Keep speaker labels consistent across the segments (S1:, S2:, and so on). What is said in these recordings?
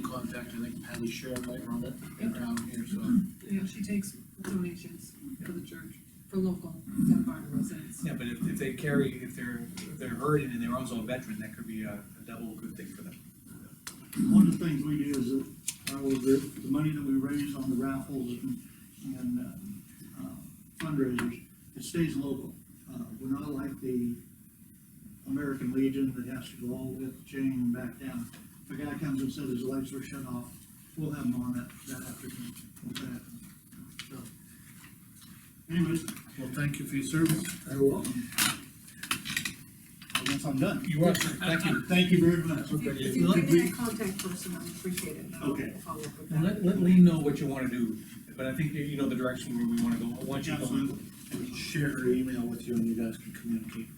S1: contact, I think Patty Sharon might run it around here, so.
S2: Yeah, she takes donations for the church, for local Santa Barbara residents.
S3: Yeah, but if, if they carry, if they're, if they're hurting and they're also a veteran, that could be a, a double good thing for them.
S4: One of the things we do is that, uh, well, the, the money that we raise on the raffles and, and, uh, uh, fundraisers, it stays local. Uh, we're not like the American Legion that has to go all the way up the chain and back down. If a guy comes and says his lights were shut off, we'll have him on that, that afternoon, if that happens. So, Anyways,
S1: Well, thank you for your service.
S4: I will. I guess I'm done.
S3: You are, sir. thank you.
S4: Thank you very much.
S2: If you- If you give me that contact person, I appreciate it, and I'll
S4: Okay.
S2: follow up with
S3: And
S2: that.
S3: let, let Lee know what you wanna do, but I think that you know the direction where we wanna go, I want you to. go.
S4: Absolutely.
S1: Share her email with you and you guys can communicate.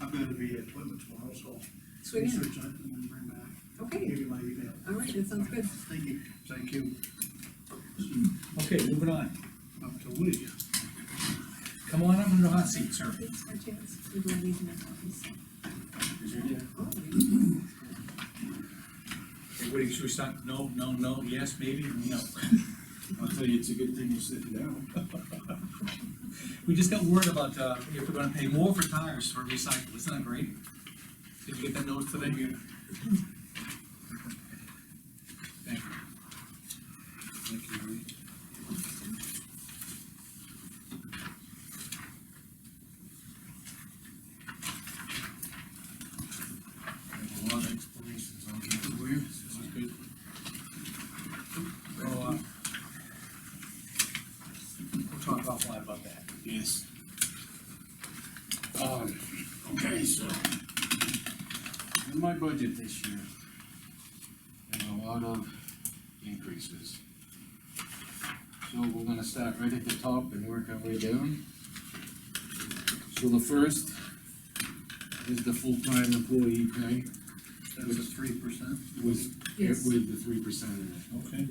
S4: I'm gonna be at Plymouth tomorrow, so I'll
S2: Sweet,
S4: research it and then bring back,
S2: okay,
S4: give you my email.
S2: all right, that sounds good.
S4: Thank you.
S1: Thank you.
S3: Okay, moving on,
S1: Up to Woody.
S3: come on up in the hot seat, sir.
S2: Thanks for a chance. We don't need to make copies. Oh,
S3: Okay, What do you, should we start, no, no, no, yes, maybe, no,
S1: I'll tell you, it's a good thing you're sitting down.
S3: we just got word about, uh, if we're gonna pay more for tires for recycle, isn't that great? Did you get that notice today? Thank you.
S1: Thank you, Woody. I have a lot of explanations on that. Where? This is good.
S3: We'll, uh, we'll talk offline about that.
S1: Yes. Um, okay, so, in my budget this year, there's a lot of increases. So we're gonna start right at the top and work our way down. So the first is the full-time employee pay
S3: That's a three percent.
S1: with,
S2: Yes.
S1: with the three percent in it.
S3: Okay.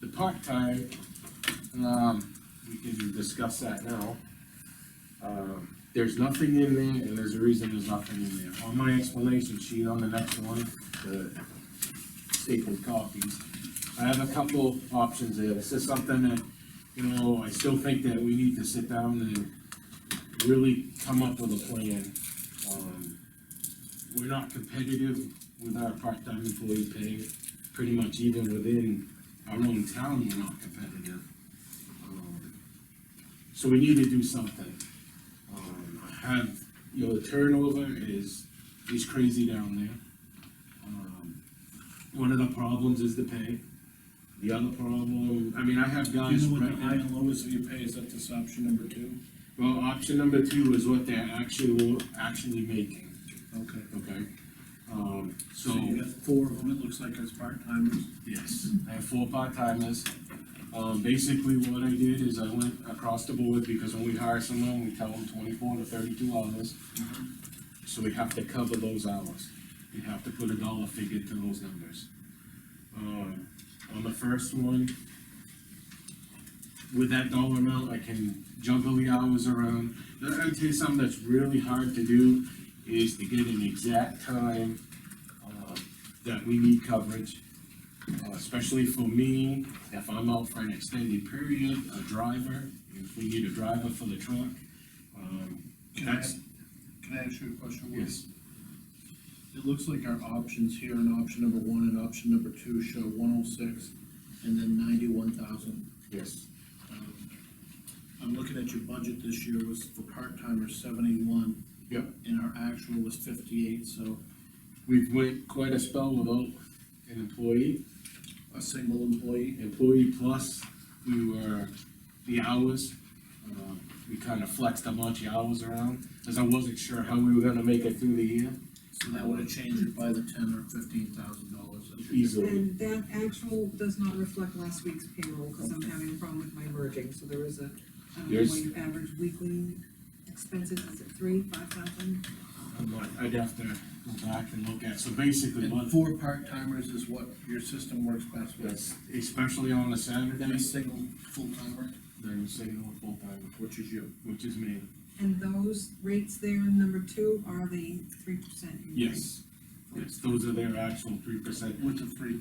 S1: The part-time, um, we can discuss that now. Um, there's nothing in there, and there's a reason there's nothing in there. On my explanation sheet, on the next one, the stapled copies, I have a couple options there. This is something that, you know, I still think that we need to sit down and really come up with a plan. Um, We're not competitive with our part-time employee pay, pretty much even within our own town, we're not competitive. Um, So we need to do something. Um, I have, you know, the turnover is, is crazy down there. Um, One of the problems is the pay. The other problem, I mean, I have
S5: Do
S1: guys
S5: you know what
S1: right
S5: the high
S1: now.
S5: and low is that you pay, is that this option number two?
S1: Well, option number two is what they're actually, actually making,
S5: Okay.
S1: okay? Um, so.
S5: So you got four of them, it looks like as part-timers.
S1: Yes, I have four part-timers. Um, basically what I did is I went across the board, because when we hire someone, we tell them twenty-four to thirty-two hours. So we have to cover those hours. We have to put a dollar figure to those numbers. Um, on the first one, with that dollar amount, I can juggle the hours around. I'll tell you something that's really hard to do, is to get an exact time, uh, that we need coverage uh, especially for me, if I'm out for an extended period, a driver, if we need a driver for the truck, um,
S5: Can I,
S1: that's,
S5: can I ask you a question? Woody?
S1: yes,
S5: It looks like our options here in option number one and option number two show one oh six and then ninety-one thousand. Um,
S1: yes,
S5: I'm looking at your budget this year was for part-timers seventy-one.
S1: Yep.
S5: And our actual was fifty-eight, so
S1: we've went quite a spell without an employee,
S5: a single employee.
S1: employee plus, we were, the hours, um, we kind of flexed a bunch of hours around, because I wasn't sure how we were gonna make it through the year,
S5: So that would have changed it by the ten or fifteen thousand dollars.
S1: easily,
S2: And that actual does not reflect last week's payroll, because I'm having a problem with my merging, so there is a, I don't know
S1: There's-
S2: what your average weekly expenses, is it three, five thousand?
S1: I'm like, I'd have to go back and look at, so basically,
S5: And
S1: what,
S5: four part-timers is what your system works best with.
S1: that's, especially on
S5: Then
S1: the
S5: a
S1: Saturdays,
S5: single full-timer,
S1: then you say no full-time,
S5: which is you.
S1: which is me.
S2: And those rates there in number two are the three percent.
S1: Yes, yes, those are their actual three percent.
S5: With the three